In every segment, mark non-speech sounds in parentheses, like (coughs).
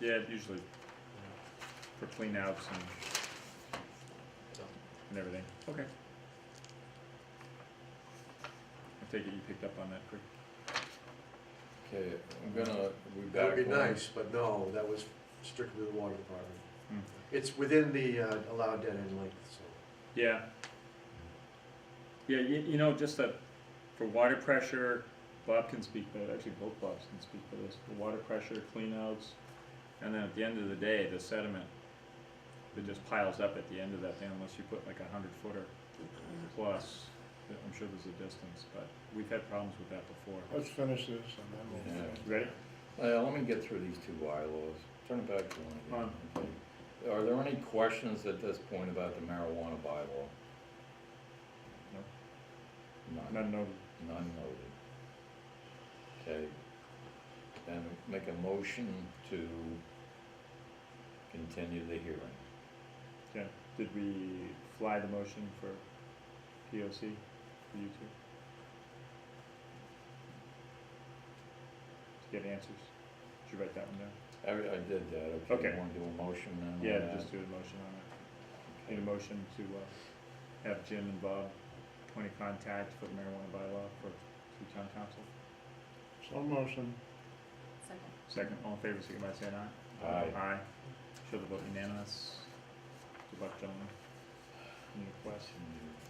Yeah, usually for cleanouts and So- and everything. Okay. I take it you picked up on that quick. Okay, I'm gonna, we back. That would be one. nice, but no, that was strictly the water department. Hmm. It's within the uh, allowed dead end length, so. Yeah. Yeah, you, you know, just that for water pressure, Bob can speak to that, actually both Bobs can speak to this, for water pressure, cleanouts, and then at the end of the day, the sediment, it just piles up at the end of that thing unless you put like a hundred footer plus, I'm sure there's a distance, but we've had problems with that before. Let's finish this and then Yeah. Ready? Uh, let me get through these two bylaws, turn it back to one Fine. again. Okay. Are there any questions at this point about the marijuana bylaw? None, None noted. none noted. Okay, then make a motion to continue the hearing. Yeah, did we fly the motion for POC, for you two? To get answers, did you write that one down? I, I did that, okay, Okay. you wanna do a motion then? on Yeah, that? just do a motion on it, need a motion to, uh, have Jim and Bob point of contact for the marijuana bylaw for, to town council. so motion. Second. Second, all in favor, signify by saying aye. Aye. Aye, show the vote unanimous, good luck gentlemen, any questions?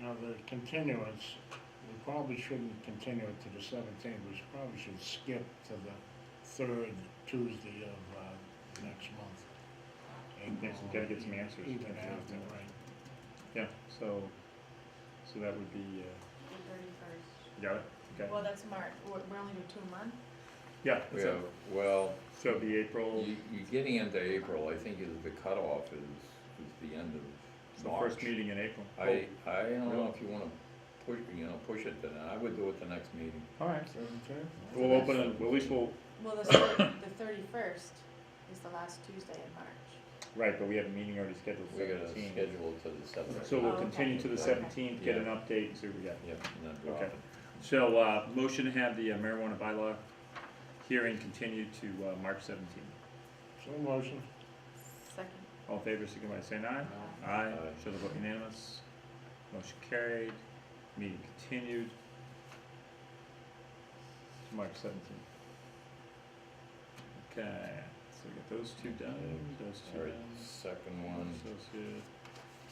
Now, the continuance, we probably shouldn't continue it to the seventeenth, we should- probably should skip to the third Tuesday of, uh, next month. And Yes, we gotta get some answers. Even after, right. Yeah, so, so that would be, uh, The thirty-first. You Got it? Okay. Well, that's March, we're, we're only doing two a month. Yeah, that's Yeah, it. well, So it'd be April, you, you're getting into April, I think is the cutoff is, is the end it's of the March. first meeting in April. I, I don't know if you wanna push, you know, push it then, I would do it the next meeting. All right. Seventeenth? We'll open it, well, at least we'll, Well, the, thir- (coughs) the thirty-first is the last Tuesday in March. right, but we have a meeting already scheduled We gotta seventeen. schedule it to the seventh. So we'll Oh, okay. continue to the Okay. seventeenth, get an Yeah. update and see what we got. Yep, and then drop Okay. it. So, uh, motion to have the uh, marijuana bylaw hearing continued to, uh, March seventeenth. So motion, Second. All in favor, signify by saying aye. Uh, Aye. Aye. Show the vote unanimous. Motion carried. Meeting continued. To March seventeenth. Okay, so we got those two done, those two All right, done. second one, Associate.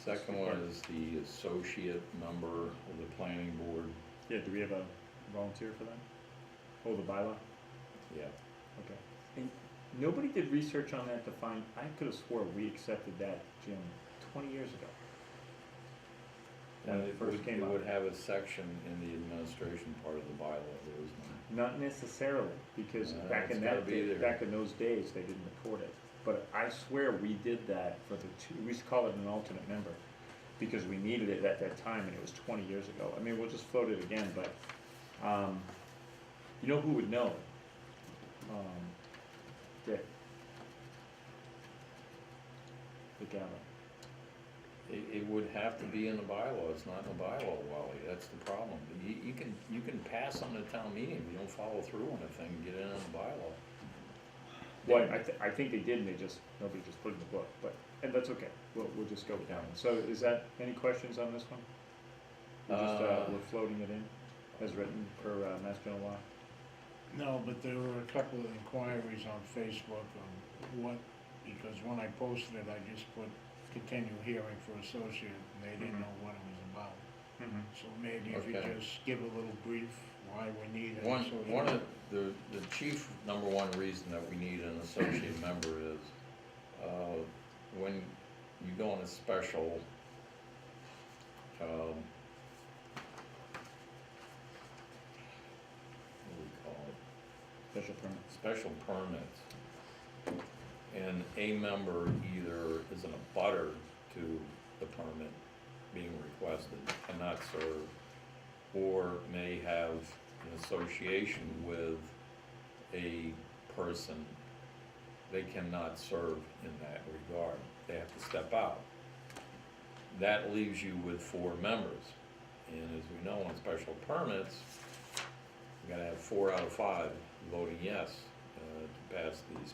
second one is the associate member of the planning board, Yeah, do we have a volunteer for that? Oh, the bylaw? yeah. Okay. And nobody did research on that to find, I could have swore we accepted that, Jim, twenty years ago. When And it it first would, came it up. would have a section in the administration part of the bylaw, there is none. Not necessarily, because Uh, back in it's gotta that be day, there. back in those days, they didn't record it. But I swear we did that for the two, we used to call it an alternate member, because we needed it at that time, and it was twenty years ago. I mean, we'll just float it again, but, um, you know who would know? Um, Dick. Dick Allen. It, it would have to be in the bylaw, it's not in the bylaw, Wally, that's the problem. You, you can, you can pass on a town meeting, if you don't follow through on a thing, get it in the bylaw. Well, I, th- I think they did, and they just, nobody just put it in the book, but, and that's okay, we'll, we'll just go with that one. So is that, any questions on this one? We're just, uh, Uh, we're floating it in, as written per, uh, Mass General Law? no, but there were a couple of inquiries on Facebook on what, because when I posted it, I just put continue hearing for associate, and they didn't know what it was about. Mm-hmm. So maybe if you Okay. just give a little brief why we need it. One, so we one know. of, the, the chief number one reason that we need an associate member is, uh, when you go on a special, um, what do we call it? Special permit. special permits. And a member either is in a butter to the permit being requested, cannot serve, or may have an association with a person, they cannot serve in that regard, they have to step out. That leaves you with four members, and as we know, on special permits, you gotta have four out of five voting yes uh, to pass these